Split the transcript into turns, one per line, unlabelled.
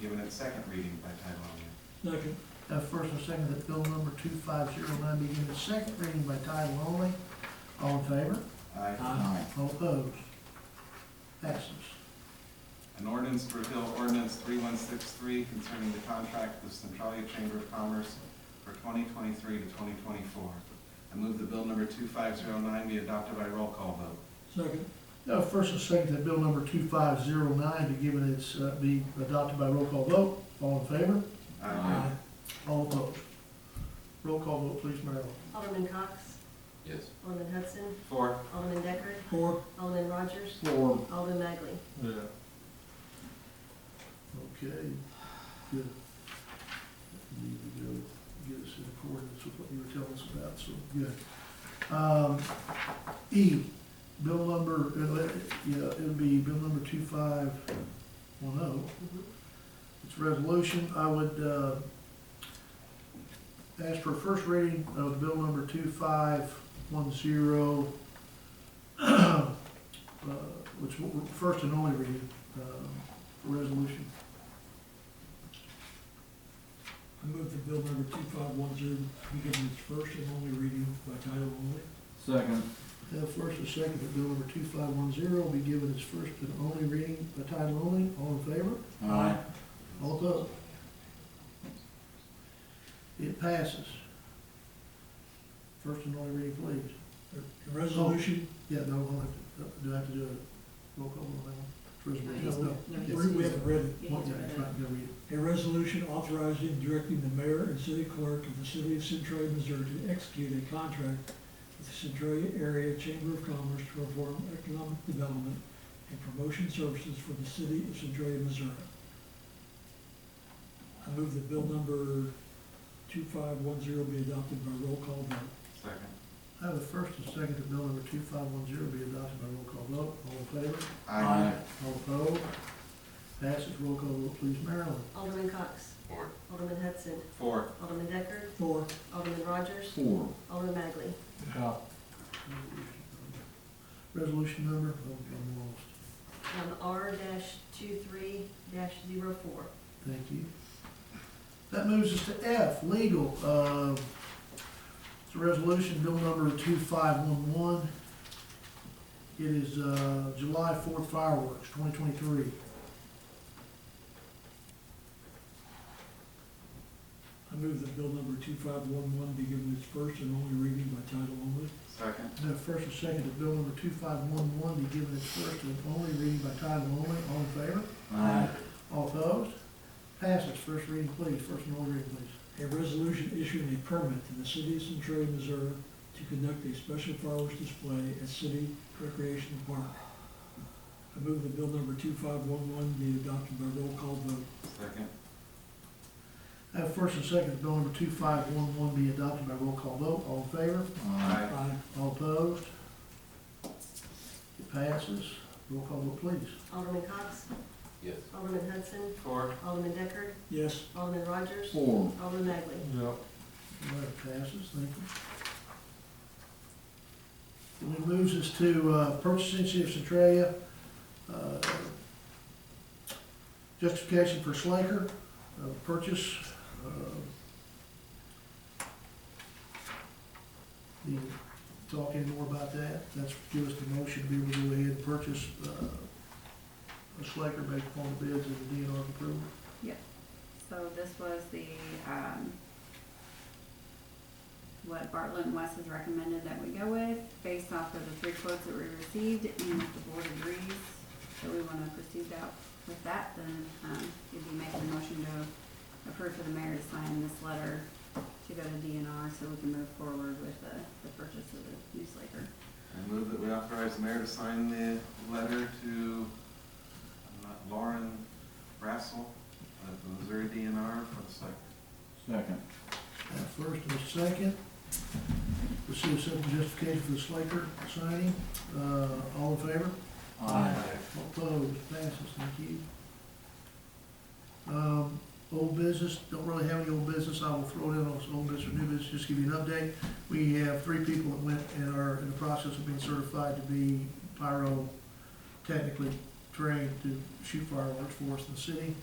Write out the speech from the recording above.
given its second reading by title only.
Second.
Have Uh, first and second that bill number two five zero nine be given its second reading by title only. All in favor?
Aye.
Aye.
All opposed? Passes.
An ordinance to repeal ordinance three one six three concerning the contract with Centralia Chamber of Commerce for twenty twenty-three to twenty twenty-four. I move that bill number two five zero nine be adopted by roll call vote.
Second.
Have first and second that bill number two five zero nine be given its, uh, be adopted by roll call vote. All in favor?
Aye.
All opposed? Roll call vote, please, Marilyn.
Alderman Cox,
Yes.
Alderman Hudson,
Four.
Alderman Decker,
Four.
Alderman Rogers,
Four.
Alderman Magley.
Yeah.
Okay, good. Need to go get us in accordance with what you were telling us about, so, good. Um, E, bill number, uh, let- yeah, it would be bill number two five one oh.
Mhm.
It's a resolution, I would, uh, ask for first reading of bill number two five one zero, uh, which, w- first and only reading, um, resolution.
I move that bill number two five one zero be given its first and only reading by title only.
Second.
Have first and second that bill number two five one zero be given its first and only reading by title only. All in favor?
Aye.
All opposed? It passes. First and only reading, please.
The Resolution,
Yeah, no, we'll have to, do I have to do a roll call on that one? It's resolution, no,
No,
no.
he
we
Yes.
just-
we haven't read it.
Yeah,
Well,
he's
yeah,
read
that's
it.
right, go read it.
A resolution authorizing and directing the mayor and city clerk of the city of Centralia, Missouri to execute a contract with the Centralia Area Chamber of Commerce to perform economic development and promotion services for the city of Centralia, Missouri. I move that bill number two five one zero be adopted by roll call vote.
Second.
I have a first and second that bill number two five one zero be adopted by roll call vote. All in favor?
Aye.
All opposed? Passes roll call vote, please, Marilyn.
Alderman Cox,
Four.
Alderman Hudson,
Four.
Alderman Decker,
Four.
Alderman Rogers,
Four.
Alderman Magley.
Resolution number, oh, I'm lost.
Um, R dash two three dash zero four.
Thank you. That moves us to F, legal. Uh, It's a resolution, bill number 2511. It is uh, July 4th fireworks, 2023.
I move that bill number two five one one be given its first and only reading by title only.
Second.
Now, first and second, that bill number 2511 be given its first and only reading by title only. All in favor?
Aye.
All opposed? Passes. First reading, please. First and only reading, please.
A resolution issuing a permit to the city of Centralia, Missouri to conduct a special fireworks display at City Recreation Park. I move that bill number two five one one be adopted by roll call vote.
Second.
I Have first and second, that bill number 2511 be adopted by roll call vote. All in favor?
Aye.
Aye.
All opposed? It passes. Roll call vote, please.
Alderman Cox,
Yes.
Alderman Hudson,
Four.
Alderman Decker,
Yes.
Alderman Rogers,
Four.
Alderman Magley.
All right, passes, thank you. And it moves us to uh, purchasing City of Centralia, uh, justification for Slaker, uh, purchase. uh, Need to talk any more about that? That's give us the motion, to be able to go ahead and purchase uh, a Slaker based upon the bids and the DNR approval.
So this was the, um, what Bartlett and West has recommended that we go with, based off of the three quotes that we received, and if the board agrees that we wanna proceed out with that, then, um, you'd be making a motion to approve for the mayor to sign this letter to go to DNR so we can move forward with the, the purchase of the new slaker.
I move that we authorize the mayor to sign the letter to uh, Lauren Brassel of the Missouri DNR for the site.
Second.
Uh, First and a second, receive simple justification for the Slaker signing, uh, all in favor? All Opposed, passes, thank you. Um, old business, don't really have any old business, I will throw it in on some old business or new business, just give you an update. We have three people that went and are in the process of being certified to be pyro technically trained to shoot fireworks for us in the city.